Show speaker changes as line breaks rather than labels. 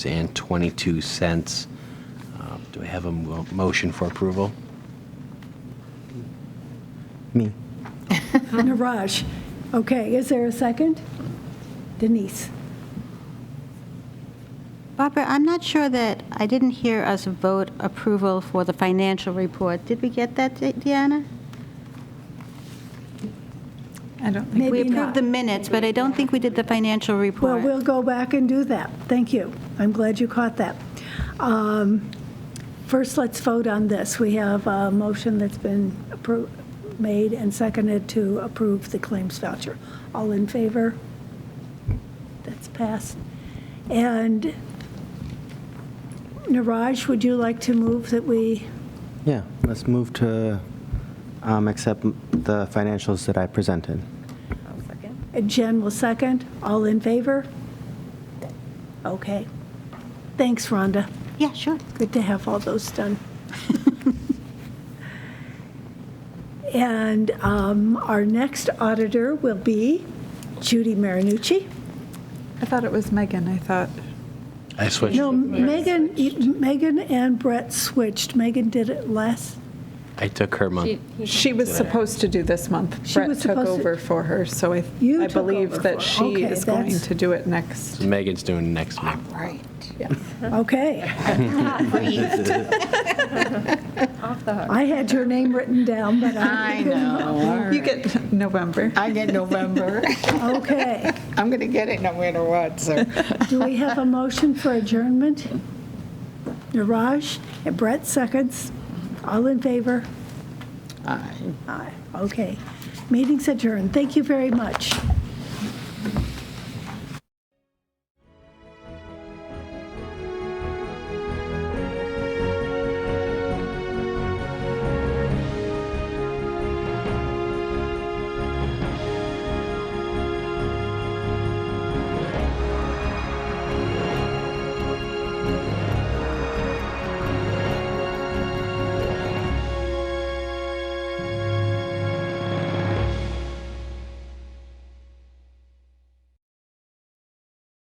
and 22 cents. Um, Do I have a mo- motion for approval? Me.
Naraj. Okay, is there a second? Denise?
Barbara, I'm not sure that, I didn't hear us vote approval for the financial report. Did we get that, De- Deanna?
I don't think,
Maybe
We approved
not.
the minutes, but I don't think we did the financial
Well,
report.
we'll go back and do that. Thank you. I'm glad you caught that. Um, First, let's vote on this. We have a motion that's been appro- made and seconded to approve the claims voucher. All in favor? That's passed. And Naraj, would you like to move that we,
Yeah, let's move to um, accept the financials that I presented.
Jen will second? All in favor? Okay. Thanks, Rhonda.
Yeah, sure.
Good to have all those done. And um, our next auditor will be Judy Marinucci.
I thought it was Megan, I thought.
I switched.
No,
with Mary.
Megan, Megan and Brett switched. Megan did it last.
I took her month.
She was supposed to do this month.
She
Brett
was
took
supposed to-
over for her, so I,
You
I
took over
believe
for-
that she
okay,
is going
that's-
to do it next.
Megan's doing next month.
Right.
Okay. I had your name written down, but I,
I know.
You get November.
I get November.
okay.
I'm going to get it no matter what, so.
Do we have a motion for adjournment? Naraj and Brett seconds. All in favor?
Aye.
Aye. Okay. Meeting's adjourned. Thank you very much.